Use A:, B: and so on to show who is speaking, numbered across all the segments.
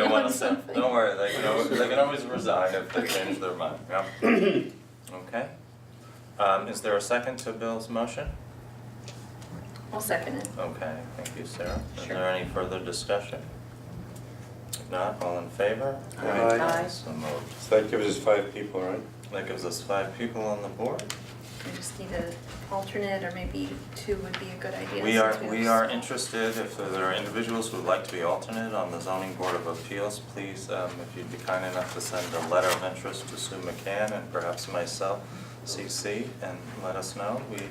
A: on
B: something.
A: Don't worry, they can always, they can always resign if they change their mind, yeah. Okay. Um, is there a second to Bill's motion?
B: I'll second it.
A: Okay, thank you, Sarah. Is
B: Sure.
A: there any further discussion? If not, all in favor?
C: Aye.
B: Aye.
A: So moved.
C: So that gives us five people, right?
A: That gives us five people on the board.
B: I just need an alternate, or maybe two would be a good idea.
A: We
B: since
A: are,
B: have
A: we are
B: small-
A: interested, if there are individuals who'd like to be alternate on the zoning board of appeals, please, um, if you'd be kind enough to send a letter of interest to Sue McCann and perhaps myself, CC, and let us know. We,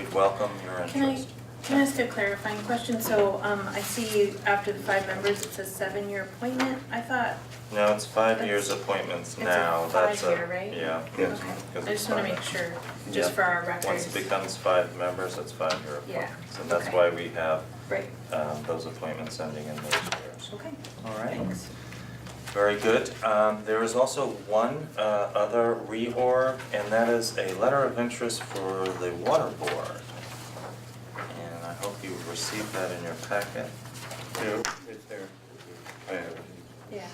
A: we'd welcome your
D: Can I,
A: interest.
D: can I ask a clarifying question? So, um, I see after the five members, it says seven-year appointment. I thought,
A: No, it's five years
D: It's-
A: appointments
D: it's a
A: now, that's a, yeah.
D: five-year, right?
C: Yes.
D: okay,
A: because
D: I just
A: it's
D: wanna
A: five.
D: make sure, just for our records.
A: Yeah, once it becomes five members, it's five-year
D: Yeah,
A: appointments, and that's
D: okay.
A: why we have,
D: Right,
A: um, those appointments ending in those years.
D: okay,
A: All right.
D: thanks.
A: Very good. Um, there is also one, uh, other reorg, and that is a letter of interest for the water board. And I hope you received that in your packet,
C: Yeah, it's there. I have it.
D: Yeah,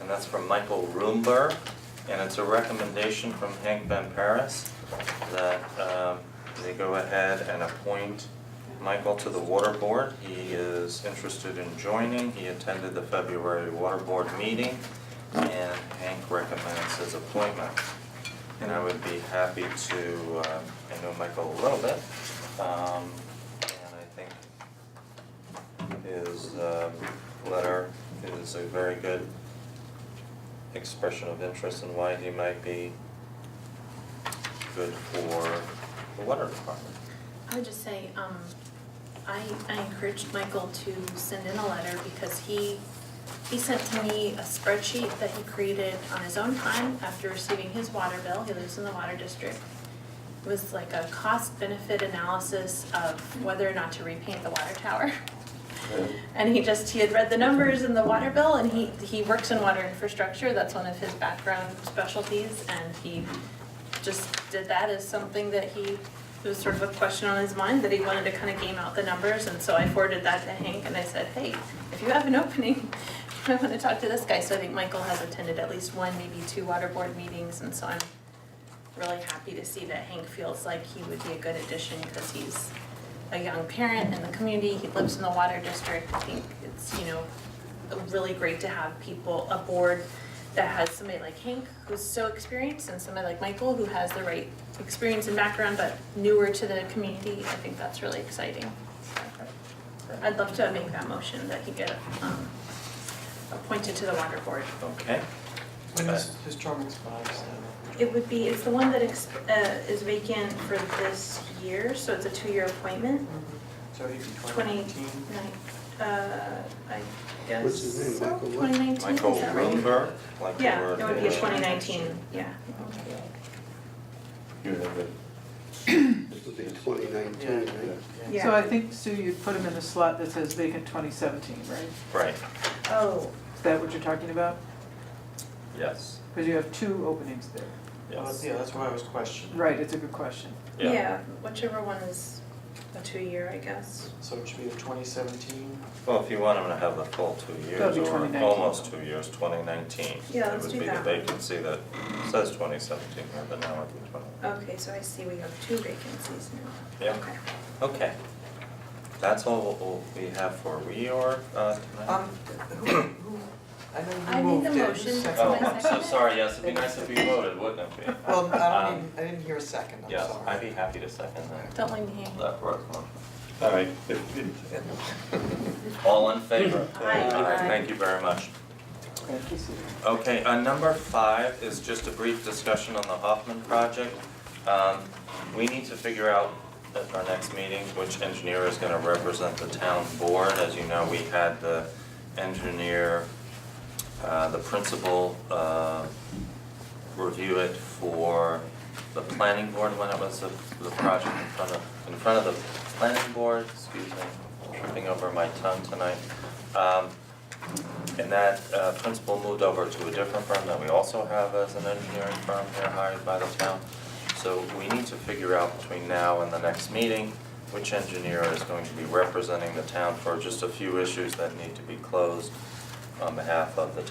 A: and that's from Michael Roomber, and it's a recommendation from Hank Van Paris that, um, they go ahead and appoint Michael to the water board. He is interested in joining. He attended the February water board meeting, and Hank recommends his appointment. And I would be happy to, um, I know Michael a little bit, um, and I think his, um, letter is a very good expression of interest in why he might be good for the water department.
D: I would just say, um, I, I encouraged Michael to send in a letter because he, he sent to me a spreadsheet that he created on his own time after receiving his water bill, he lives in the water district. It was like a cost benefit analysis of whether or not to repaint the water tower. And he just, he had read the numbers in the water bill and he, he works in water infrastructure, that's one of his background specialties. And he just did that as something that he, it was sort of a question on his mind that he wanted to kind of game out the numbers. And so I forwarded that to Hank and I said, hey, if you have an opening, I want to talk to this guy. So I think Michael has attended at least one, maybe two water board meetings. And so I'm really happy to see that Hank feels like he would be a good addition because he's a young parent in the community, he lives in the water district, I think it's, you know, really great to have people aboard that has somebody like Hank, who's so experienced, and somebody like Michael, who has the right experience and background, but newer to the community, I think that's really exciting. I'd love to make that motion that he get, um, appointed to the water board.
A: Okay,
E: Uh,
F: When is his term expires then?
D: It would be, it's the one that ex- uh, is vacant for this year, so it's a two-year appointment.
F: So he'd be
D: Twenty-
F: twenty nineteen?
D: Nine- Uh, I guess.
C: What's his name,
D: so,
C: Michael what?
D: 2019, is
A: Michael
D: that right?
A: Bloomberg, like the
D: Yeah,
A: word
D: it would be a
A: Bloomberg.
D: 2019, yeah.
C: You have it.
E: This would be twenty nineteen, right?
D: Yeah.
G: So I think, Sue, you'd put him in a slot that says vacant 2017, right?
A: Right,
D: Oh,
G: Is that what you're talking about?
A: yes,
G: Because you have two openings there.
F: Well, that's-
A: yes,
F: Yeah, that's why I was questioning.
G: Right, it's a good question.
A: yeah.
D: yeah, whichever one is a two-year, I guess.
F: So it should be the twenty seventeen?
A: Well, if you want him to have the full two
G: That'll
A: years
G: be
A: or
G: 2019.
A: almost two years, twenty nineteen,
D: Yeah,
A: it
D: let's
A: would
D: do
A: be the
D: that.
A: vacancy that says twenty seventeen, but now it be twenty.
D: Okay, so I see we have two vacancies now.
A: Yeah.
D: Okay.
A: Okay. That's all we have for reorg uh, tonight.
F: Um, who, who, I know
D: I
F: you
D: need
F: moved
D: the
F: it.
D: motion.
F: Second.
A: Oh, I'm so sorry, yes, it'd be nice if you voted, wouldn't it be?
F: Well, I
A: Um,
F: don't even, I didn't hear a second, I'm sorry.
A: Yes, I'd be happy to second that.
D: Don't leave me hanging.
A: That works, huh?
C: All right.
A: All in favor?
D: Aye. Aye.
A: Thank you very much.
G: Thank you, Sue.
A: Okay, uh, number five is just a brief discussion on the Hoffman project. Um, we need to figure out at our next meeting which engineer is gonna represent the town board. As you know, we had the engineer, uh, the principal, uh, review it for the planning board when it was the, the project in front of, in front of the planning board, excuse me, tripping over my tongue tonight. Um, and that uh, principal moved over to a different firm that we also have as an engineering firm here hired by the town. So we need to figure out between now and the next meeting, which engineer is going to be representing the town for just a few issues that need to be closed on behalf of the